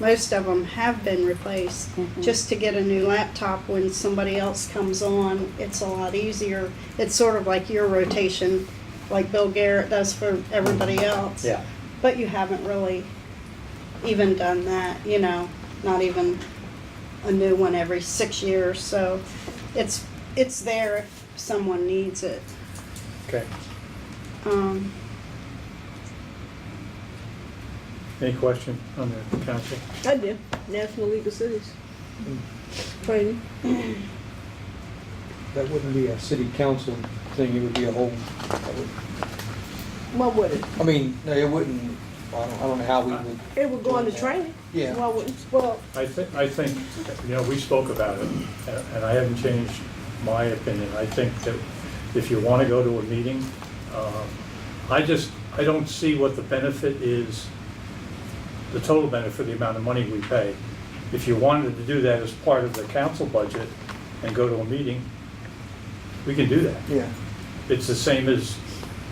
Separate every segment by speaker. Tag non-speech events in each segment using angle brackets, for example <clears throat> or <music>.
Speaker 1: Most of them have been replaced.
Speaker 2: Mm-hmm.
Speaker 3: Mhm.
Speaker 1: Just to get a new laptop when somebody else comes on, it's a lot easier. It's sort of like your rotation, like Bill Garrett does for everybody else.
Speaker 2: Yeah.
Speaker 1: But you haven't really even done that, you know, not even a new one every six years. So it's, it's there if someone needs it.
Speaker 2: Okay.
Speaker 1: Um,
Speaker 2: Any question on the council?
Speaker 4: I do. National League of Cities. Training.
Speaker 5: That wouldn't be a city council thing, it would be a whole, that would-
Speaker 4: What would it?
Speaker 5: I mean, no, it wouldn't, I don't, I don't know how we would,
Speaker 4: It would go into training.
Speaker 5: Yeah.
Speaker 4: Why wouldn't, well,
Speaker 2: I think, I think, you know, we spoke about it, and and I haven't changed my opinion. I think that if you want to go to a meeting, um, I just, I don't see what the benefit is, the total benefit for the amount of money we pay. If you wanted to do that as part of the council budget and go to a meeting, we can do that.
Speaker 5: yeah.
Speaker 2: It's the same as,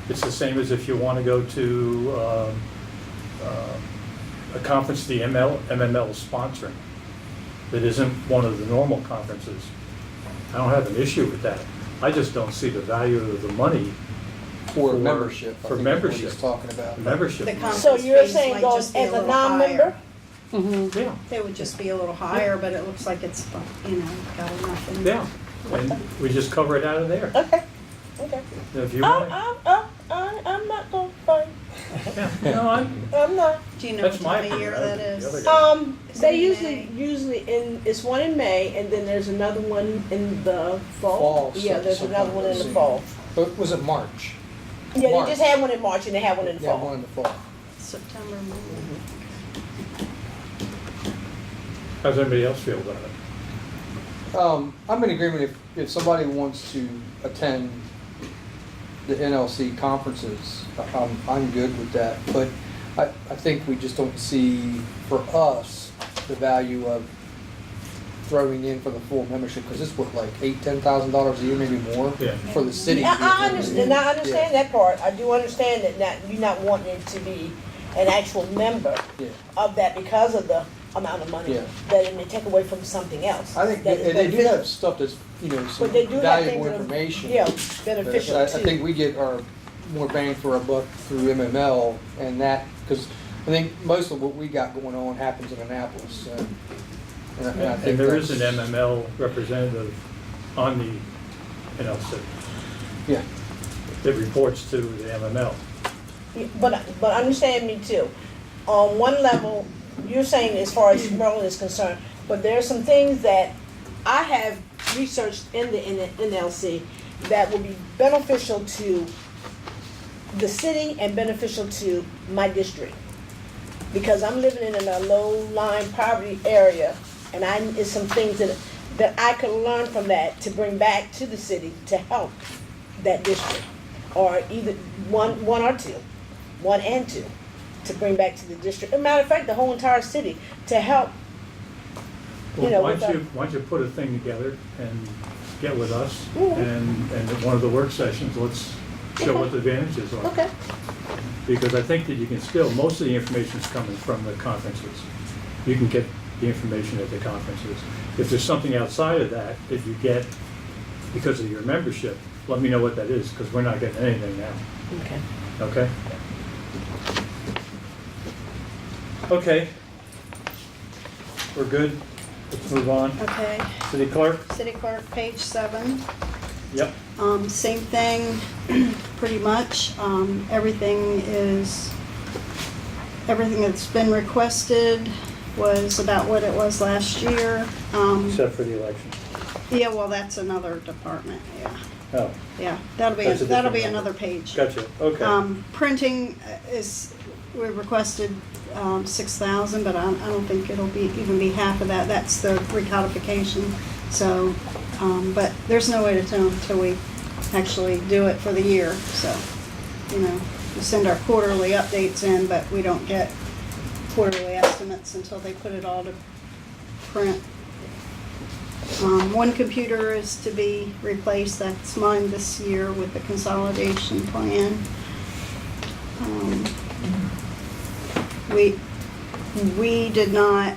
Speaker 2: it's the same as if you want to go to um, uh, a conference the ML, MML is sponsoring, that isn't one of the normal conferences. I don't have an issue with that. I just don't see the value of the money,
Speaker 5: For
Speaker 2: For-
Speaker 5: membership. I think that's
Speaker 2: for
Speaker 5: what
Speaker 2: membership.
Speaker 5: he's talking about.
Speaker 2: the membership.
Speaker 1: The
Speaker 2: money.
Speaker 4: so you're
Speaker 1: Conference fees
Speaker 4: saying
Speaker 1: might just
Speaker 4: goes
Speaker 1: be a
Speaker 4: as a
Speaker 1: little higher.
Speaker 4: non-member?
Speaker 3: Mm-hmm.
Speaker 2: Yeah,
Speaker 1: they would just be a little higher, but it looks like it's, you know, got enough in there.
Speaker 2: yeah. And we just cover it out of there.
Speaker 4: Okay, okay.
Speaker 2: If you
Speaker 4: I'm,
Speaker 2: want,
Speaker 4: I'm, I'm, I'm I'm not gonna fight.
Speaker 2: yeah, no, I'm,
Speaker 4: I'm not.
Speaker 1: Do you know what
Speaker 2: That's my
Speaker 1: time of year
Speaker 2: opinion.
Speaker 1: that
Speaker 2: The other
Speaker 1: is?
Speaker 2: guy-
Speaker 4: Um,
Speaker 1: It's
Speaker 4: they
Speaker 1: in
Speaker 4: usually,
Speaker 1: May.
Speaker 4: usually in, it's one in May and then there's another one in the fall.
Speaker 5: Fall,
Speaker 4: Yeah,
Speaker 5: some-
Speaker 4: there's another
Speaker 5: sometime
Speaker 4: one in the
Speaker 5: soon.
Speaker 4: fall.
Speaker 5: But was it March?
Speaker 4: Yeah, they
Speaker 5: March.
Speaker 4: just had one in March and they had one in the
Speaker 5: Yeah, one
Speaker 4: fall.
Speaker 5: in the fall.
Speaker 1: September, morning.
Speaker 2: how's everybody else feel about it?
Speaker 5: Um, I'm in agreement if, if somebody wants to attend the NLC conferences, I- I'm, I'm good with that. But I, I think we just don't see for us the value of throwing in for the full membership because it's what, like eight, ten thousand dollars a year, maybe more
Speaker 2: Yeah.
Speaker 5: for the city.
Speaker 4: Yeah, I, I understand, I understand that part. I do understand that not, you not wanting to be an actual member
Speaker 5: Yeah.
Speaker 4: of that because of the amount of money
Speaker 5: Yeah.
Speaker 4: that it may take away from something else.
Speaker 5: I think
Speaker 4: that
Speaker 5: they,
Speaker 4: is
Speaker 5: they do
Speaker 4: beneficial.
Speaker 5: have stuff that's you know some
Speaker 4: But they do have
Speaker 5: valuable
Speaker 4: things that are-
Speaker 5: information.
Speaker 4: Yeah,
Speaker 5: But
Speaker 4: beneficial
Speaker 5: I,
Speaker 4: too.
Speaker 5: I think we get our more bang for our buck through MML and that, because I think most of what we got going on happens in Annapolis, so. and I- And I think
Speaker 2: And there is an
Speaker 5: that's-
Speaker 2: MML representative on the NLC.
Speaker 5: Yeah,
Speaker 2: It reports to the MML.
Speaker 4: Yeah, But, but understand me too. On one level, you're saying as far as Merlin is concerned, but there are some things that I have researched in the N- NLC that will be beneficial to the city and beneficial to my district. Because I'm living in a low-lying poverty area, and I, it's some things that, that I could learn from that to bring back to the city to help that district. Or either one, one or two, one and two, to bring back to the district. As a matter of fact, the whole entire city, to help, You know,
Speaker 2: Well, why
Speaker 4: with
Speaker 2: don't
Speaker 4: the-
Speaker 2: you, why don't you put a thing together and get with us?
Speaker 4: Mhm.
Speaker 2: And, and at one of the work sessions, let's show what the advantages are.
Speaker 4: okay,
Speaker 2: Because I think that you can still, most of the information's coming from the conferences. You can get the information at the conferences. If there's something outside of that that you get because of your membership, let me know what that is, because we're not getting anything now.
Speaker 4: okay.
Speaker 2: Okay. Okay. We're good. Let's move on.
Speaker 1: Okay,
Speaker 2: City clerk?
Speaker 1: city clerk, page seven.
Speaker 2: Yep.
Speaker 1: Um, same thing, <clears throat> pretty much. Um, everything is, everything that's been requested was about what it was last year. Um,
Speaker 2: Except for the election.
Speaker 1: yeah, well, that's another department, yeah,
Speaker 2: Oh,
Speaker 1: yeah. That'll be,
Speaker 2: That's a different
Speaker 1: that'll be
Speaker 2: number.
Speaker 1: another page.
Speaker 2: gotcha. Okay.
Speaker 1: Um, printing is, we requested, um, six thousand, but I, I don't think it'll be, even be half of that, that's the recodification. So, um, but there's no way to tell until we actually do it for the year, so, you know, we send our quarterly updates in, but we don't get quarterly estimates until they put it all to print. Um, one computer is to be replaced, that's mine this year with the consolidation plan. Um, We, we did not